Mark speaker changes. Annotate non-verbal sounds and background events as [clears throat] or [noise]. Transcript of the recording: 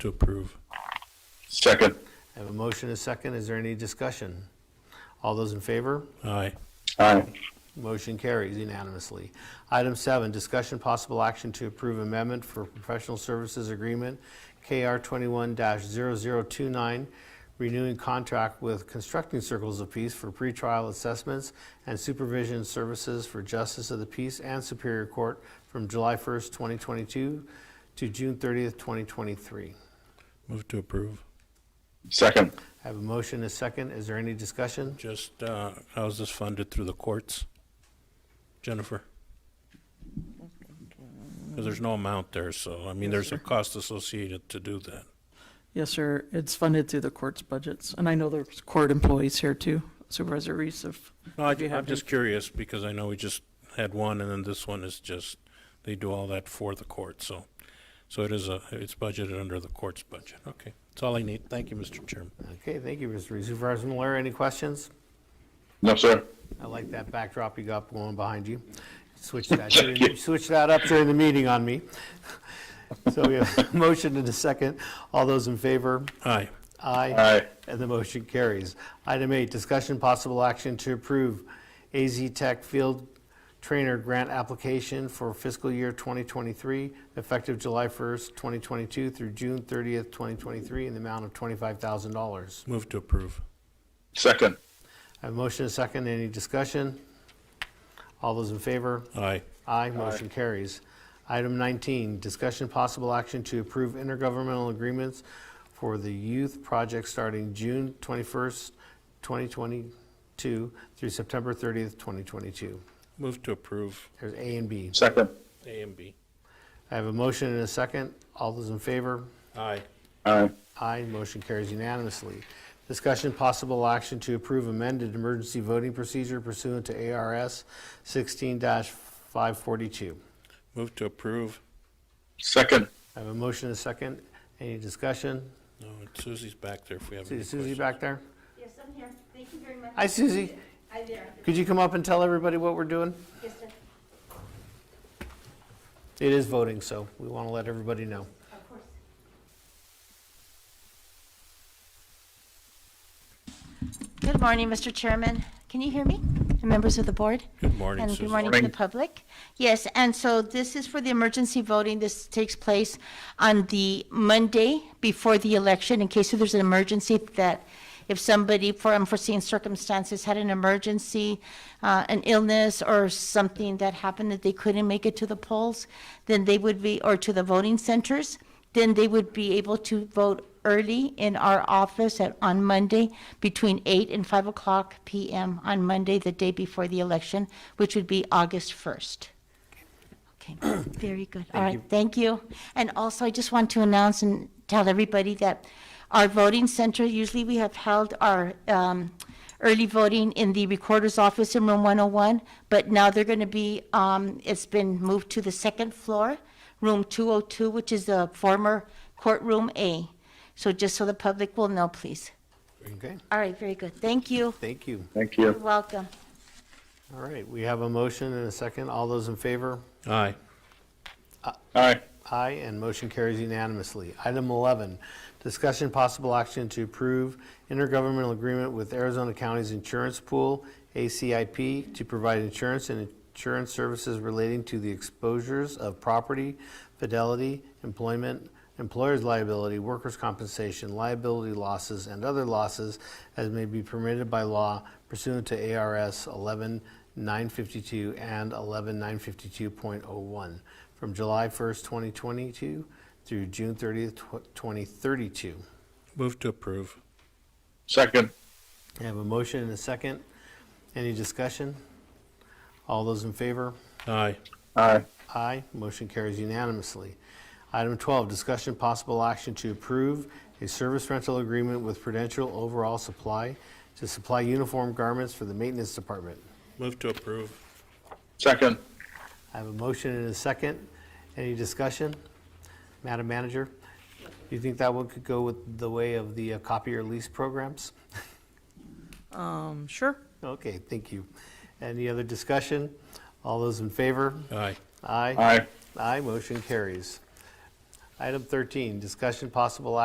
Speaker 1: to approve.
Speaker 2: Second.
Speaker 3: I have a motion, and a second. Is there any discussion? All those in favor?
Speaker 1: Aye.
Speaker 2: Aye.
Speaker 3: Motion carries unanimously. Item seven, discussion possible action to approve amendment for professional services agreement KR 21-0029, renewing contract with Constructing Circles of Peace for pretrial assessments and supervision services for Justice of the Peace and Superior Court from July 1st, 2022 to June 30th, 2023.
Speaker 1: Move to approve.
Speaker 2: Second.
Speaker 3: I have a motion, and a second. Is there any discussion?
Speaker 1: Just, uh, how's this funded through the courts? Jennifer? Because there's no amount there, so, I mean, there's a cost associated to do that.
Speaker 4: Yes, sir. It's funded through the court's budgets. And I know there's court employees here too, Supervisor Reese if.
Speaker 1: No, I-
Speaker 4: if you
Speaker 1: I'm
Speaker 4: have
Speaker 1: just curious, because I know we just had one, and then this one is just, they do all that for the court, so. So it is a, it's budgeted under the court's budget. Okay, that's all I need. Thank you, Mr. Chairman.
Speaker 3: Okay, thank you, Mr. Reese. Supervisor Malera, any questions?
Speaker 2: No, sir.
Speaker 3: I like that backdrop you got going behind you. Switch that, during- switch that up during the meeting on me. So we have a motion and a second. All those in favor?
Speaker 1: Aye.
Speaker 3: Aye.
Speaker 2: Aye.
Speaker 3: And the motion carries. Item eight, discussion possible action to approve AZ Tech Field Trainer Grant Application for fiscal year 2023, effective July 1st, 2022 through June 30th, 2023, in the amount of $25,000.
Speaker 1: Move to approve.
Speaker 2: Second.
Speaker 3: I have a motion and a second. Any discussion? All those in favor?
Speaker 1: Aye.
Speaker 3: Aye, motion carries. Item 19, discussion possible action to approve intergovernmental agreements for the youth project starting June 21st, 2022 through September 30th, 2022.
Speaker 1: Move to approve
Speaker 3: There's A and B.
Speaker 2: Second.
Speaker 1: A and B.
Speaker 3: I have a motion and a second. All those in favor?
Speaker 1: Aye.
Speaker 2: Aye.
Speaker 3: Aye, motion carries unanimously. Discussion possible action to approve amended emergency voting procedure pursuant to ARS 16-542.
Speaker 1: Move to approve.
Speaker 2: Second.
Speaker 3: I have a motion and a second. Any discussion?
Speaker 1: No, Susie's back there if we have any
Speaker 3: Is Susie
Speaker 1: questions.
Speaker 3: back there?
Speaker 5: Yes, I'm here. Thank you very much.
Speaker 3: Hi, Susie.
Speaker 5: Hi there.
Speaker 3: Could you come up and tell everybody what we're doing?
Speaker 5: Yes, sir.
Speaker 3: It is voting, so we want to let everybody know.
Speaker 5: Of course. Good morning, Mr. Chairman. Can you hear me? And Members of the board?
Speaker 1: Good morning,
Speaker 5: And
Speaker 1: Susan.
Speaker 5: good morning to the public. Yes, and so this is for the emergency voting. This takes place on the Monday before the election in case if there's an emergency that if somebody for unforeseen circumstances had an emergency, uh, an illness or something that happened that they couldn't make it to the polls, then they would be, or to the voting centers, then they would be able to vote early in our office at, on Monday between 8 and 5 o'clock PM on Monday, the day before the election, which would be August 1st. [clears throat] Okay, very good. All right, thank you. And also, I just want to announce and tell everybody that our voting center, usually we have held our um, early voting in the recorder's office in room 101, but now they're going to be, um, it's been moved to the second floor, room 202, which is the former courtroom A. So just so the public will know, please.
Speaker 3: Okay,
Speaker 5: All right, very good. Thank you.
Speaker 3: thank you.
Speaker 2: Thank
Speaker 5: You're
Speaker 2: you.
Speaker 5: welcome.
Speaker 3: All right, we have a motion and a second. All those in favor?
Speaker 1: Aye.
Speaker 2: Aye.
Speaker 3: Aye, and motion carries unanimously. Item 11, discussion possible action to approve intergovernmental agreement with Arizona County's Insurance Pool, ACIP, to provide insurance and insurance services relating to the exposures of property, fidelity, employment, employer's liability, workers' compensation, liability losses, and other losses as may be permitted by law pursuant to ARS 11952 and 11952.01 from July 1st, 2022 through June 30th, tw- 2032.
Speaker 1: Move to approve.
Speaker 2: Second.
Speaker 3: I have a motion and a second. Any discussion? All those in favor?
Speaker 1: Aye.
Speaker 2: Aye.
Speaker 3: Aye, motion carries unanimously. Item 12, discussion possible action to approve a service rental agreement with Prudential Overall Supply to supply uniform garments for the maintenance department.
Speaker 1: Move to approve.
Speaker 2: Second.
Speaker 3: I have a motion and a second. Any discussion? Madam Manager, do you think that one could go with the way of the uh, copier lease programs?
Speaker 4: Um, Sure.
Speaker 3: Okay, thank you. Any other discussion? All those in favor?
Speaker 1: Aye.
Speaker 3: Aye.
Speaker 2: Aye.
Speaker 3: Aye, motion carries. Item 13, discussion possible